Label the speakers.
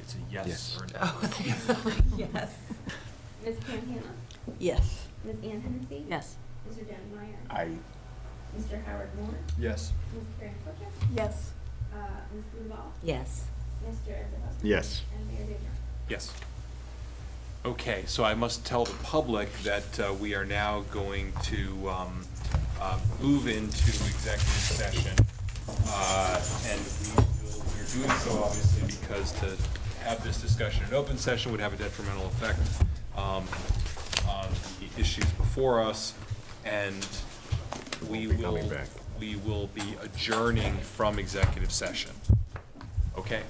Speaker 1: It's a yes
Speaker 2: Yes.
Speaker 1: or a no.
Speaker 3: Oh, Yes.
Speaker 4: Ms. Pam Hannah?
Speaker 3: Yes.
Speaker 4: Ms. Ann Hennessy?
Speaker 3: Yes.
Speaker 4: Mr. John Meyer?
Speaker 2: I,
Speaker 4: Mr. Howard Moore?
Speaker 1: Yes.
Speaker 4: Ms. Karen Fletcher?
Speaker 3: Yes.
Speaker 4: Uh, Ms. Blumenbach?
Speaker 3: Yes.
Speaker 4: Mr. Esterhaus?
Speaker 2: yes.
Speaker 4: And Mayor Dittmer?
Speaker 1: Yes. Okay, so I must tell the public that uh, we are now going to um, uh, move into executive session. Uh, And we will- we're doing so obviously because to have this discussion in open session would have a detrimental effect um, on the issues before us. And we
Speaker 2: We'll be
Speaker 1: will,
Speaker 2: coming back.
Speaker 1: we will be adjourning from executive session. Okay?